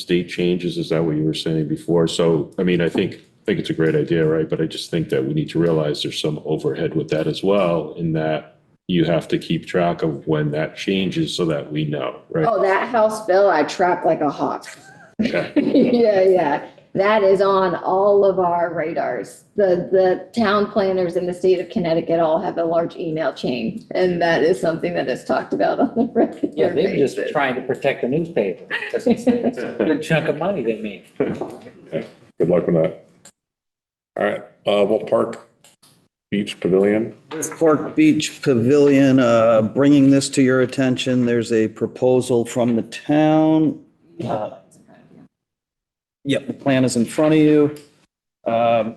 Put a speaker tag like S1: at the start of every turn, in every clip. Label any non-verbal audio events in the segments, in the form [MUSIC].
S1: state changes, is that what you were saying before? So, I mean, I think, I think it's a great idea, right? But I just think that we need to realize there's some overhead with that as well, in that you have to keep track of when that changes so that we know, right?
S2: Oh, that house bill, I track like a hawk. [LAUGHS]
S1: Okay.
S2: Yeah, yeah. That is on all of our radars. The, the town planners in the state of Connecticut all have a large email chain. And that is something that is talked about on the [LAUGHS]
S3: Yeah,
S2: regular
S3: they were just
S2: basis.
S3: trying to protect the newspaper. That's
S4: [LAUGHS]
S3: a Good chunk of money they made.
S5: Good luck with that. All right, uh, Wolf Park Beach Pavilion.
S6: This Park Beach Pavilion, uh, bringing this to your attention, there's a proposal from the town. Uh, Yep, the plan is in front of you. Um,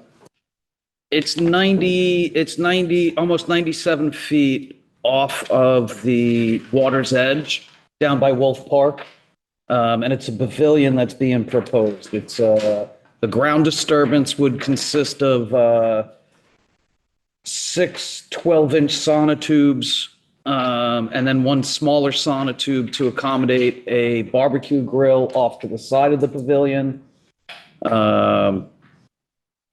S6: It's 90, it's 90, almost 97 feet off of the water's edge down by Wolf Park. Um, And it's a pavilion that's being proposed. It's, uh, the ground disturbance would consist of uh, six 12-inch sonotubes, um, and then one smaller sonotube to accommodate a barbecue grill off to the side of the pavilion. Um,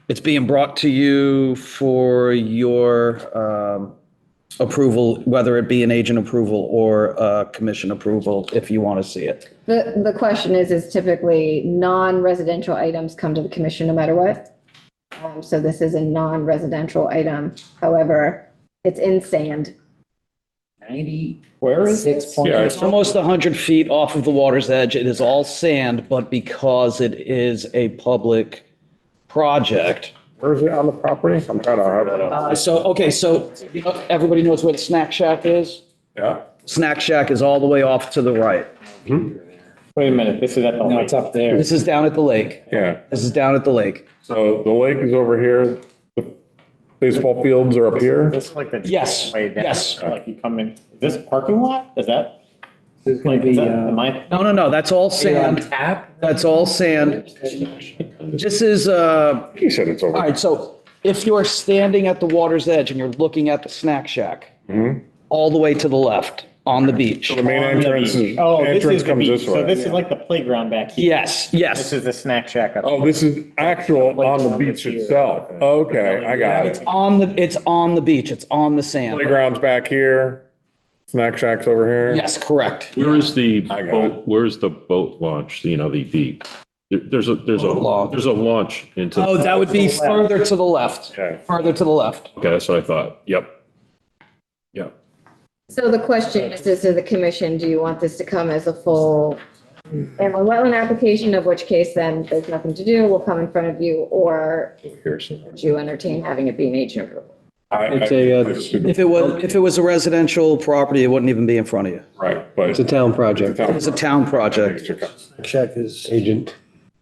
S6: It's being brought to you for your um, approval, whether it be an agent approval or uh, commission approval, if you want to see it.
S2: The, the question is, is typically non-residential items come to the commission no matter what. Um, so this is a non-residential item. However, it's in sand.
S3: Ninety, where is it?
S5: Yeah,
S6: It's almost 100 feet off of the water's edge. It is all sand, but because it is a public project,
S5: Where is it on the property? I'm trying to, have-
S6: Uh, So, okay, so you know, everybody knows where the snack shack is?
S5: yeah,
S6: Snack shack is all the way off to the right.
S4: Wait a minute, this is at the. No, it's up there.
S6: This is down at the lake.
S5: yeah.
S6: This is down at the lake.
S5: So the lake is over here. The Baseball fields are up here.
S4: This is like the.
S6: Yes,
S4: Way down,
S6: yes.
S4: Like you come in, is this parking lot? Is that?
S3: This
S4: Like, is that,
S3: uh,
S4: am I?
S6: No, no, no, that's all sand.
S3: tap?
S6: That's all sand. This is, uh,
S5: He said it's
S6: all
S5: over.
S6: right, so if you are standing at the water's edge and you're looking at the snack shack, all the way to the left on Mm-hmm. the beach.
S5: The main entrance is,
S4: Oh, this
S5: entrance
S4: is the
S5: comes
S4: beach.
S5: this
S4: So this
S5: way.
S4: is like the playground back here.
S6: Yes,
S4: This
S6: yes.
S4: is the snack shack up.
S5: Oh, this is actual on the beach itself. Okay, I got it.
S6: On the, it's on the beach. It's on the sand.
S5: Playground's back here. Snack shack's over here.
S6: Yes, correct.
S1: Where is the
S5: I got
S1: boat, where is the boat launch, you know, the, the, there- there's a, there's
S6: Boat
S1: a,
S6: launch.
S1: there's a launch into,
S6: Oh,
S1: okay,
S6: that would be further to the left,
S5: Okay.
S6: further to the left.
S1: that's what I thought. Yep. Yep.
S2: So the question is, is to the commission, do you want this to come as a full inland wetland application, of which case then there's nothing to do, will come in front of you, or
S1: Here's some-
S2: would you entertain having it be an agent approval?
S5: I- I-
S7: It's a, uh,
S5: I assume-
S6: If it was, if it was a residential property, it wouldn't even be in front of you.
S5: Right, but.
S7: It's a town project.
S6: It's a town project.
S5: You
S7: Check is agent.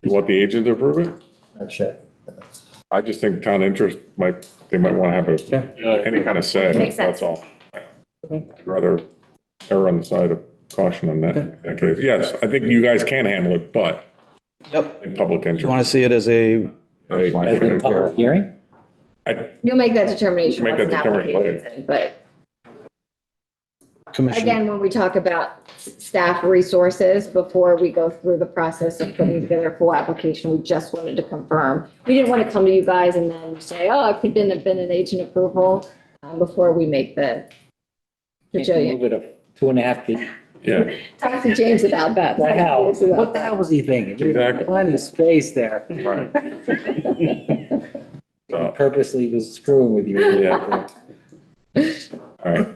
S5: want the agent to approve it?
S7: Check.
S5: I just think town interest might, they might want to have a, any kind of say,
S2: Makes sense.
S5: that's all. I'd Rather err on the side of caution on that, that case. Yes, I think you guys can handle it, but
S6: Yep.
S5: in public
S6: You want
S5: interest.
S6: to see it as a,
S5: that's my opinion.
S3: Hearing?
S5: I-
S2: You'll make that determination
S5: Make
S2: once an
S5: that determination
S2: application's in, but
S6: Commissioner,
S2: again, when we talk about staff resources, before we go through the process of putting together a full application, we just wanted to confirm. We didn't want to come to you guys and then say, oh, it could have been an agent approval, um, before we make the, to show you.
S3: Move it up two and a half feet.
S5: Yeah,
S2: Talk to James about that.
S3: The hell,
S2: Talk to James about
S3: what the hell was he thinking? There's
S5: Exactly.
S3: Plenty of space there. [LAUGHS]
S5: right.
S3: He
S5: So,
S3: Purposely was screwing with you.
S5: Yeah. all right.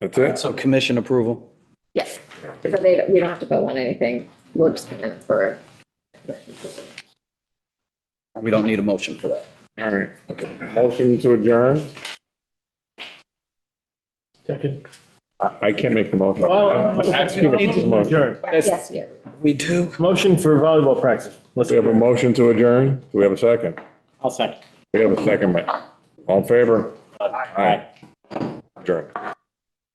S5: That's it?
S6: so commission approval.
S2: Yes, so they, don't- we don't have to vote on anything, we're just gonna, for,
S6: We don't need a motion for that.
S5: All right. Motion to adjourn?
S4: Second.
S5: I I can't make the motion.
S4: Well,
S5: Motion.
S2: yes, yeah.
S6: We do.
S4: motion for volleyball practice. Let's
S5: We have a motion to adjourn. Do we have a second?
S4: I'll second.
S5: We have a second, Mike. All in favor? Aye. Adjourn.